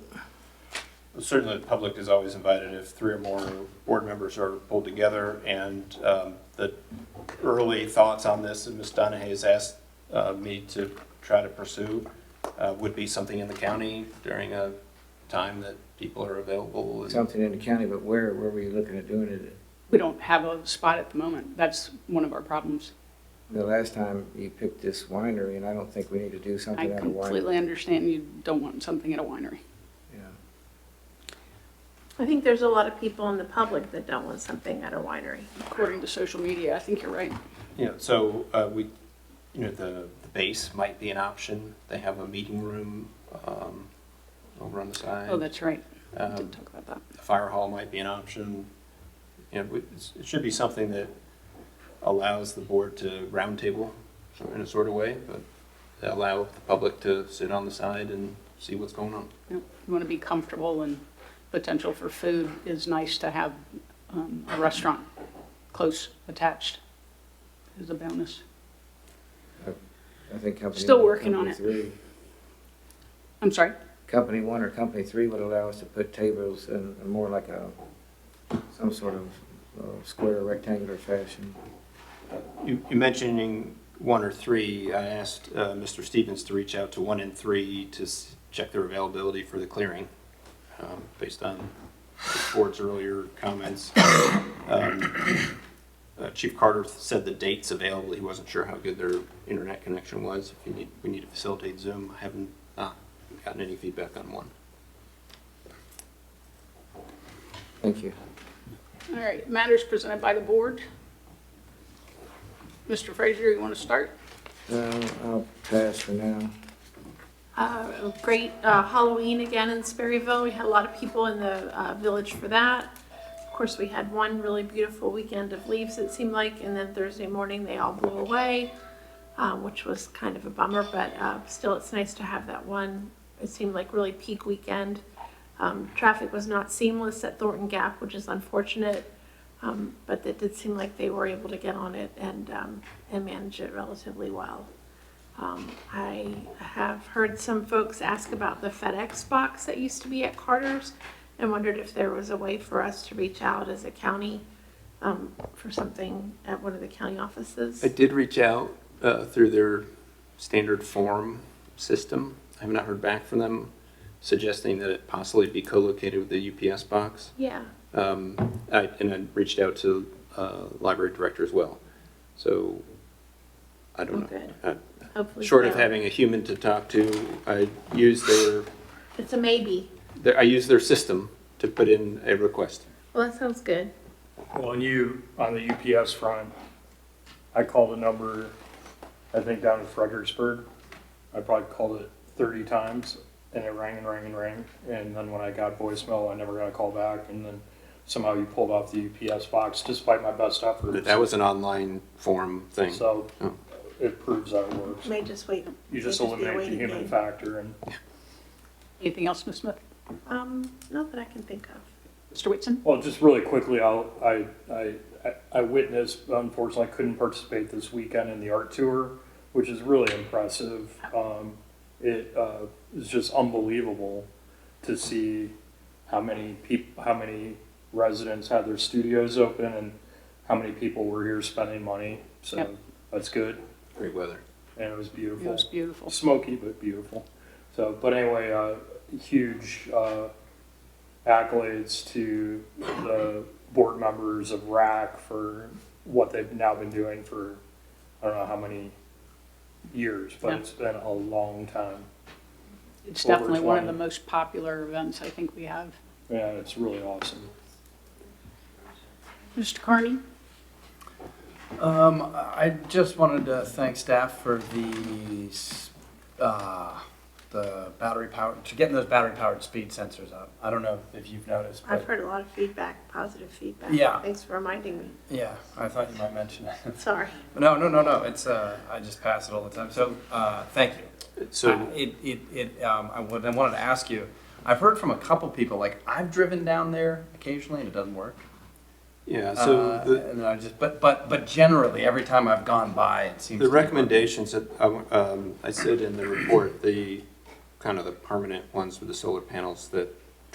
certainly the public is always invited if three or more board members are pulled together. And um, the early thoughts on this, that Ms. Donahue has asked uh, me to try to pursue, uh, would be something in the county during a time that people are available. and- Something in the county, but where, where were you looking at doing it? We don't have a spot at the moment. That's one of our problems. The last time you picked this winery, and I don't think we need to do I something out of winery. completely understand you don't want something at a winery. Yeah. I think there's a lot of people in the public that don't want something at a winery. According to social media, I think you're right. You know, so uh, we, you know, the, the base might be an option. They have a meeting room um, over on the side. Oh, that's right. We Um, Did talk about that. the fire hall might be an option. You know, it's- it should be something that allows the board to roundtable in a sort of way, but allow the public to sit on the side and see what's going on. Yeah, You want to be comfortable and potential for food is nice to have um, a restaurant close attached is a bonus. I think company. Still one or working on company it. three- I'm sorry? Company one or company three would allow us to put tables in a more like a, some sort of uh, square rectangular fashion. You, you mentioning one or three, I asked uh, Mr. Stevens to reach out to one and three to s- check their availability for the clearing, um, based on the board's earlier comments. Um, uh, Chief Carter said the dates available, he wasn't sure how good their internet connection was. If you need, we need to facilitate Zoom, I haven't uh, gotten any feedback on one. Thank you. All right, matters presented by the board. Mr. Frazier, you want to start? Uh, I'll pass for now. Uh, Great uh, Halloween again in Sperryville. We had a lot of people in the uh, village for that. Of course, we had one really beautiful weekend of leaves, it seemed like, and then Thursday morning, they all blew away, uh, which was kind of a bummer, but uh, still, it's nice to have that one, it seemed like really peak weekend. Um, Traffic was not seamless at Thornton Gap, which is unfortunate, um, but it did seem like they were able to get on it and, um, and manage it relatively well. Um, I have heard some folks ask about the FedEx box that used to be at Carter's and wondered if there was a way for us to reach out as a county um, for something at one of the county offices. I did reach out uh, through their standard form system. I have not heard back from them suggesting that it possibly be co-located with the UPS box. Yeah, Um, I- And I reached out to uh, library director as well. So I don't know. Okay. Uh, hopefully. Short of so. having a human to talk to, I use their, It's a maybe. their- I use their system to put in a request. Well, that sounds good. Well, and you, on the UPS front, I called a number, I think down in Fredericksburg. I probably called it thirty times and it rang and rang and rang. And then when I got voicemail, I never got a call back. And then somehow you pulled off the UPS box despite my best efforts. That was an online form thing. So Oh. it proves that it works. May just wait. You just May be a eliminate the waiting human game. factor and Anything else, Ms. Smith? Um, not that I can think of. Mr. Whitson? Well, just really quickly, I'll, I, I, I- I witnessed, unfortunately, I couldn't participate this weekend in the art tour, which is really impressive. Um, it, uh, is just unbelievable to see how many peop, how many residents had their studios open and how many people were here spending money. Yep. So that's good. Great weather. And it was It beautiful was beautiful. smoky but beautiful. So, but anyway, uh, huge uh, accolades to the board members of RAC for what they've now been doing for I don't know how many years, but Yeah. it's been a long time. It's Over definitely one of the 20. most popular events I think we have. Yeah, it's really awesome. Mr. Carney? Um, I just wanted to thank staff for the, s- uh, the battery power, to getting those battery powered speed sensors up. I don't know if you've noticed, I've but heard a lot of feedback, positive feedback. Yeah. Thanks for reminding me. yeah, I thought you might mention it. Sorry. No, no, no, no, it's, uh, I just pass it all the time, so, uh, thank you. So I- It, it, it, um, I would, I wanted to ask you, I've heard from a couple people, like, I've driven down there occasionally and it doesn't work. Yeah, so Uh, the, And then I just, but, but, but generally, every time I've gone by, it seems. The to work. recommendations that, I w- um, I said in the report, the, kind of the permanent ones with the solar panels that